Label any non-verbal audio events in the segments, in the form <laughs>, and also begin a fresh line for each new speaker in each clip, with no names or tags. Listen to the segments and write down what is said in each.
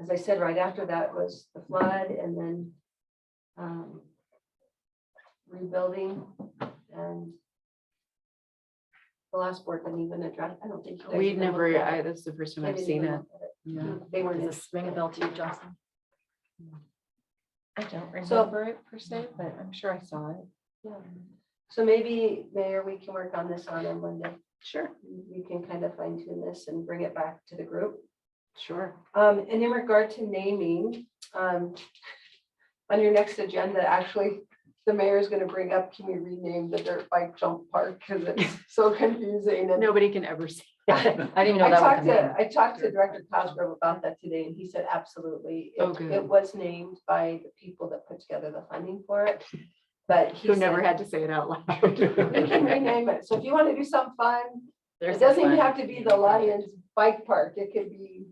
as I said, right after that was the flood and then um, rebuilding and the last board didn't even address, I don't think. you guys
We've
even
never,
looked at
I,
it.
this is the first time
They
I've
didn't
seen
even
it.
look at
Yeah.
They weren't.
Does
in-
this ring a bell to you, Jocelyn? I don't
So-
remember it per se, but I'm sure I saw it.
yeah. So maybe, Mayor, we can work on this on a Monday.
Sure,
You can kind of fine tune this and bring it back to the group.
sure.
Um, and in regard to naming, um, on your next agenda, actually, the mayor is gonna bring up, can we rename the dirt bike jump park? Cause it's so <laughs> confusing and.
Nobody can ever see.
I
I
didn't even know that was
talked
a name.
to, I talked to Director Cosgrove about that today and he said, absolutely.
Oh,
It,
good.
it was named by the people that put together the funding for it, but he
Who never
said,
had to say it out loud.
We can rename it. So if you wanna do some fun,
There's
it
that
doesn't even
one.
have to be the Lions Bike Park. It could be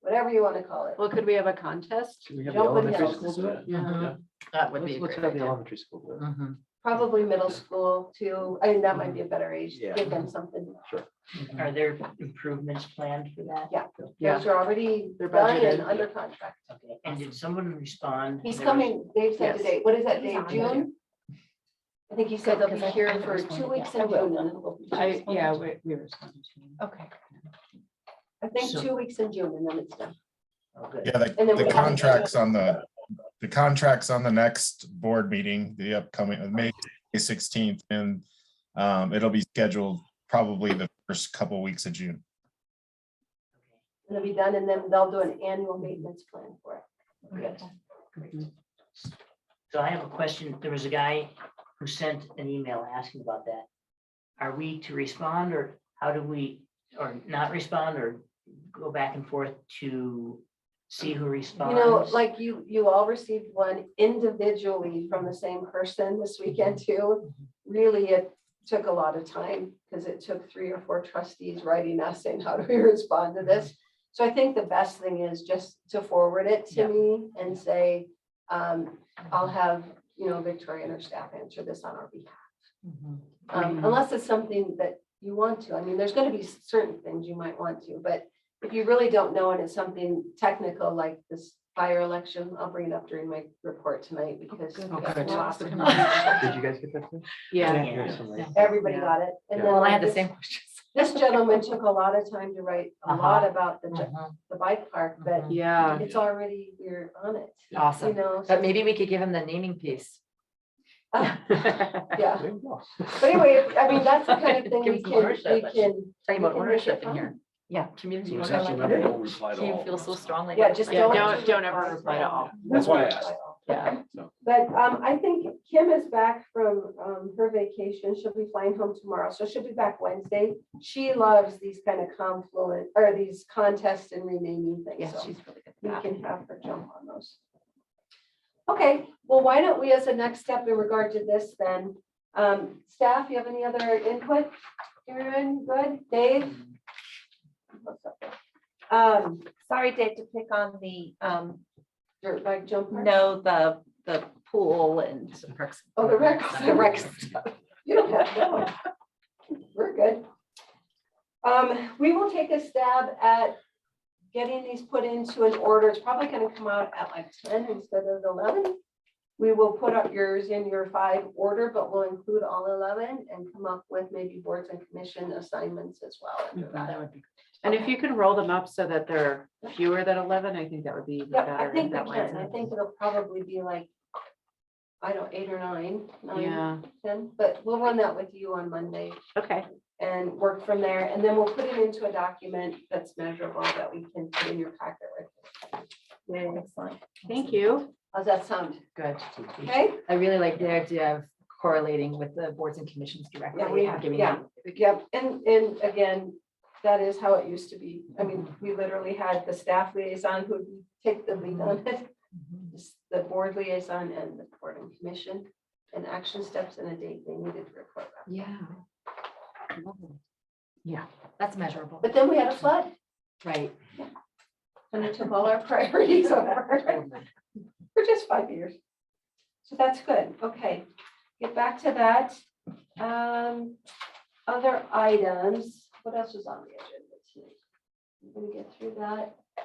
whatever you wanna call it.
Well, could we have a contest? Um,
Should we have the
Jump in
elementary
hills.
school do it?
Yeah.
That would be
Let's
a
let's
great
have the
idea.
elementary school do it.
Mhm.
Probably middle school too. I mean, that might be a better age. to
Yeah.
Give them something.
Are there improvements planned for that?
Yeah.
Yeah,
Those are already
They're
done and
budgeted.
under contract.
Okay, and did someone respond?
He's
There was-
coming, Dave said
Yes.
today, what is that
He's
day,
on
June? I think he said they'll be
Because I-
here
I
for
was
two
wondering,
weeks
yeah,
in
I will.
June. and then we'll be-
I, yeah, we, we responded to. it.
Okay.
I think
So-
two weeks in June and then it's done.
Oh, good.
Yeah, the,
And then we have-
the contracts on the, the contracts on the next board meeting, the upcoming, uh, May sixteenth, and um, it'll be scheduled probably the first couple weeks of June.
It'll be done and then they'll do an annual maintenance plan for it. Yes.
Mhm.
So I have a question. There was a guy who sent an email asking about that. Are we to respond or how do we, or not respond or go back and forth to see who
You
responds?
know, like you, you all received one individually from the same person this
Mm-hmm.
weekend too. Really, it took a lot of time because it took three or four trustees writing us saying, how do we <laughs> respond to this? So I think the best thing is just to forward it to
Mm-hmm. Yeah.
me and say, um, I'll have, you know, Victoria and her staff answer this on our behalf.
Mhm.
Um,
Mm-hmm.
Mhm.
unless it's something that you want to. I mean, there's gonna be certain things you might want to, but if you really don't know and it's something technical like this fire election, I'll bring it up during my report tonight because.
good.
we
Oh,
got
good.
lots of
Come
comments.
Did you guys get that? too? I
Yeah.
didn't hear somebody.
<laughs> Everybody got it. And then
Well, I had the
this-
same questions.
This gentleman took a lot of time to write a
Uh-huh.
lot about the,
Mm-hmm.
ju-
Mhm.
the bike park, but
Yeah,
it's already, we're on it, you
Awesome.
know? so-
But maybe we could give him the naming piece.
Ah, <laughs> Yeah,
There you go.
but anyway, I mean, that's the kind of thing
<laughs> Give
we
some
can,
ownership
we
and-
can,
Talking about
We can make
ownership
it
in here.
fun.
Yeah, community.
So it's
ownership.
actually not a whole reply to
Do you
all
feel
of
so
us.
strongly?
yeah,
about
just
that?
Yeah,
don't.
don't- don't ever reply to all.
That's why I
Don't reply
asked.
to all.
Yeah.
But um, I think Kim is back from um, her vacation. She'll be flying home tomorrow, so she'll be back Wednesday. She loves these kind of confluent, or these contests and renaming
Yeah,
things, so
she's really good.
we
at that.
can have her jump on those. Okay, well, why don't we, as a next step in regard to this then, um, staff, you have any other input? Everyone good? Dave? What's up there? Um,
Sorry, Dave, to pick on the, um,
dirt bike jump? park?
no, the, the pool and
Perks.
Oh, the rec, the rec stuff. You don't have that one. We're good. Um, we will take a stab at getting these put into an order. It's probably gonna come out at like ten instead of eleven. We will put up yours in your five order, but we'll include all eleven and come up with maybe boards and commission assignments as well. under
Mhm.
that.
That would be.
and if you can roll them up so that they're fewer than eleven, I think that would be even
Yep, I
better.
think we
That way
can. I think it'll probably be like, I don't, eight or nine, nine,
Yeah,
ten, but we'll run that with you on Monday.
okay,
and work from there. And then we'll put it into a document that's measurable that we can put in your packet. right?
excellent.
thank you.
How's that sound?
Good.
Okay?
I really like the idea of correlating with the boards and commissions directly.
Yeah, we
and
have-
giving
yeah.
them-
Yep. And, and again, that is how it used to be. I mean, we literally had the staff liaison who would take the lead on it, the board liaison and the board and commission, and action steps and a date they needed to report back.
Yeah.
Yeah.
That's measurable.
But then we had a flood
Right.
and it took all our <laughs> priorities over. for just five years. So that's good. Okay, get back to that. Um, other items, what else was on the agenda today? We're gonna get through that.